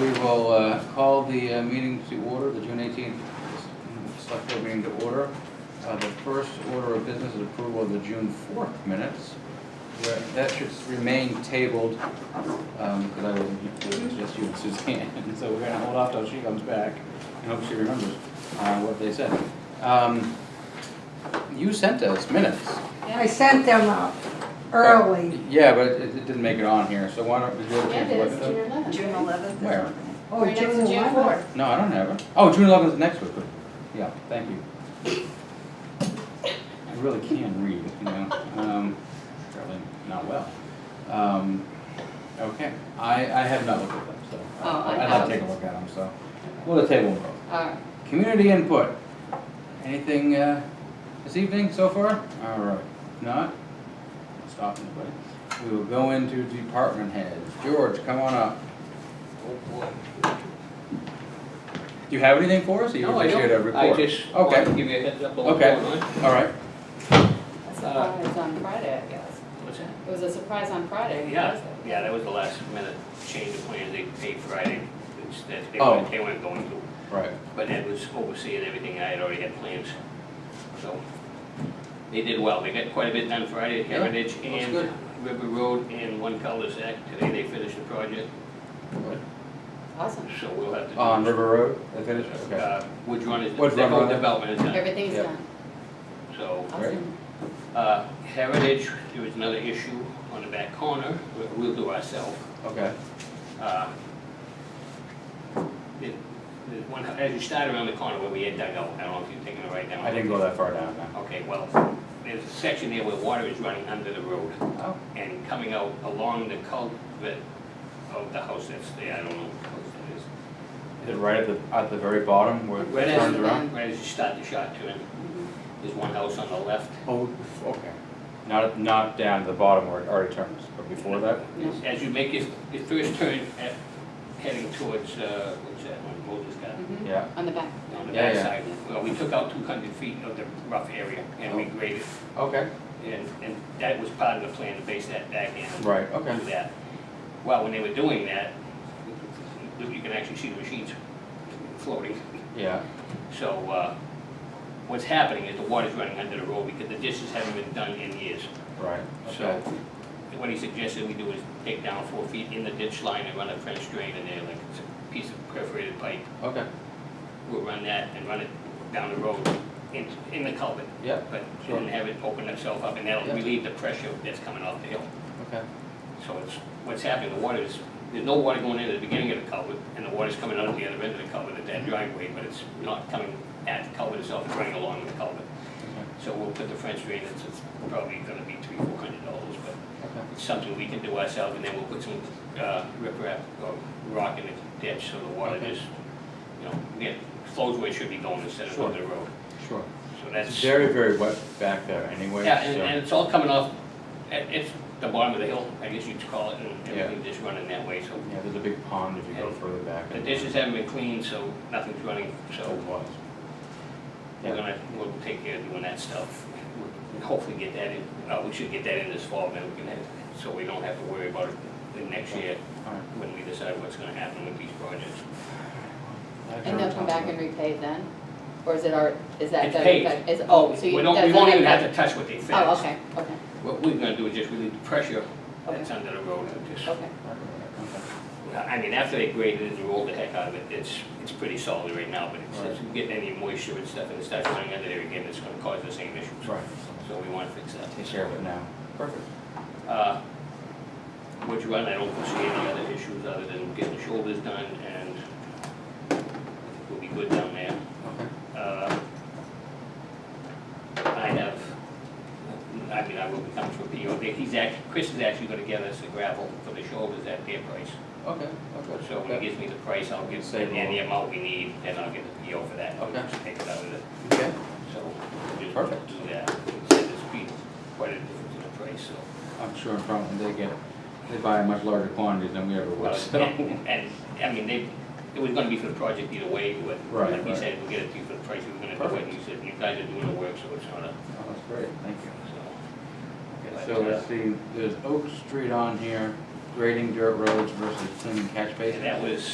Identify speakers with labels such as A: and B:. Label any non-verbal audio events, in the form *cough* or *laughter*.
A: We will uh, call the uh, meeting to order, the June 18th Select Board meeting to order. Uh, The first order of business is approval of the June 4th minutes. Where- That should remain tabled, because I was, it was just you and Suzanne, *laughs* so we're gonna hold off till she comes back and hope she remembers uh, what they said. Um, You sent us minutes.
B: I sent them out early.
A: Yeah, but it it didn't make it on here, so why don't, did you have a
C: Yeah,
A: chance to
C: it
A: look
C: is,
A: at them?
D: June
C: June eleventh.
D: eleventh.
A: Where?
B: Oh,
C: Right next to June
B: 11th.
C: fourth.
A: No, I don't have it. Oh, June eleventh is next week. Good. Yeah, thank you. I really can read, you know, um, apparently not well. Um, okay, I, I have not looked at them, so. I-
C: Oh, I
A: I'd like
C: have.
A: to take a look at them, so. We'll table them both.
C: All right.
A: Community input. Anything, uh, this evening so far? All right, If not? I'll Stop anybody. We will go into department heads. George, come on up. Do you have anything for us? or you
E: No, I
A: just here to
E: don't, I
A: report?
E: just wanted to
A: Okay,
E: give you a heads up on what's
A: okay,
E: going on.
A: all right.
C: A surprise on Friday, I guess.
E: What's that?
C: It was a surprise on Friday.
E: Yeah,
C: wasn't it?
E: yeah, that was the last minute change of plans, they paid Friday, it's, that they
A: Oh.
E: weren't, they weren't going to.
A: Right.
E: But Ed was overseeing everything, I had already had plans, so. They did well, they got quite a bit done Friday at
A: Yeah,
E: Heritage
A: looks
E: and
A: good.
E: River Road and one cul-de-sac, today they finished the project,
C: Awesome.
E: so we'll have to. do-
A: On River Road, they finished? Okay.
E: Uh, Wood Run is,
A: Wood
E: their
A: Run,
E: whole
A: right.
E: development is done,
C: Everything's
A: Yeah.
C: done.
E: so.
A: Great.
C: Awesome.
E: Uh, Heritage, there was another issue on the back corner, we- we'll do ourselves.
A: Okay,
E: Uh, the- the one- As you start around the corner where we had dug out, I don't know if you're taking it right down.
A: I didn't go that far down now.
E: Okay, well, there's a section there where water is running under the road
A: Oh,
E: and coming out along the culvert of the house that's there, I don't know what house that is.
A: is it right at the, at the very bottom where
E: Right
A: it Mm-hmm.
E: as,
A: turns
E: you-
A: around?
E: right as you start the shot turn, there's one house on the left.
A: Oh, okay. Not, not down to the bottom where it already turns, but before that?
E: As- As you make your, your first turn at, heading towards, uh, what's that one, Moses Garden?
C: Mhm.
A: Yeah.
C: On the back.
E: on the
A: Yeah, yeah.
E: backside. Well, we took out two hundred feet of the rough area and we graded,
A: Okay.
E: and, and that was part of the plan to base that back in.
A: Right, okay.
E: Do that. Well, when they were doing that, you can actually see the machines floating.
A: Yeah,
E: So, uh, what's happening is the water's running under the road because the ditches haven't been done in years.
A: right,
E: So,
A: okay.
E: what he suggested we do is take down four feet in the ditch line and run a French drain in there, like it's a piece of perforated pipe.
A: Okay,
E: We'll run that and run it down the road in, in the culvert.
A: yeah,
E: but
A: Sure.
E: shouldn't have it open itself up, and
A: Yeah.
E: that'll relieve the pressure that's coming off the hill.
A: okay,
E: So it's, what's happening, the water is, there's no water going in at the beginning of the culvert, and the water's coming out at the other end of the culvert at that driveway, but it's not coming at the culvert itself, it's running along the culvert.
A: okay,
E: So we'll put the French drain, it's, it's probably gonna be three, four hundred dollars, but
A: okay,
E: it's something we can do ourselves, and then we'll put some, uh, riprap or rock in the ditch, so the water
A: Okay.
E: just, you know, again, flows where it should be going instead of
A: Sure.
E: under the road.
A: sure.
E: So
A: It's
E: that's.
A: very, very wet back there anyway,
E: Yeah, and, and
A: so,
E: it's all coming off, it, it's the bottom of the hill, I guess you'd call it, and
A: Yeah.
E: everything just running that way, so.
A: yeah, there's a big pond if you go
E: And
A: further back.
E: The
A: and-
E: dishes haven't been cleaned, so nothing's running,
A: So it
E: so
A: was.
E: we're
A: Yeah.
E: gonna, we'll take care of doing that stuff. We'll Hopefully get that in, uh, we should get that in this fall, then we can have, so we don't have to worry about it the next year
A: All right.
E: when we decide what's gonna happen with these projects.
A: I've
C: And
A: never
C: they'll come back and repay then? Or is it our, is that?
E: It's
C: done?
E: paid.
C: Is, oh, so you.
E: We don't, we
C: that's
E: won't
C: not-
E: even have to touch what they fix.
C: Oh, okay, okay,
E: What we're gonna do is just relieve the pressure
C: Okay.
E: that's under the road and just
C: okay.
A: Okay.
E: I mean, after they graded it and rolled the heck out of it, it's, it's pretty solid right now, but it's- it's,
A: Right.
E: getting any moisture and stuff, and it starts running under there again, it's gonna cause the same issues.
A: Right,
E: So we wanna fix that.
A: take care of it now. Perfect.
E: Uh, Which run, I don't foresee any other issues other than getting the shoulders done, and we'll be good down there.
A: Okay.
E: Uh, I have, I mean, I will become for PO, he's act, Chris is actually gonna get us the gravel for the shoulders at their price.
A: Okay, okay.
E: So when he gives me the price, I'll give
A: Save a
E: any
A: little.
E: amount we need, and I'll get the PO for that. We'll
A: Okay.
E: Just take it out of it,
A: Okay,
E: so. we'll just
A: Perfect.
E: Do that, instead of speed, quite a difference in the price, so.
A: I'm sure in front, they get, they buy in much larger quantities than we ever would, so. *laughs*
E: And, and, I mean, they, it was gonna be for the project either way, but
A: Right,
E: like
A: right.
E: he said, we'll get it to you for the price, we were gonna do it, and you said, you guys are doing the work, so it's not a,
A: Oh, That's great, thank you.
E: so.
A: Okay, So let's see, there's Oak Street on here, grading dirt roads versus cleaning catch basins.
E: And that was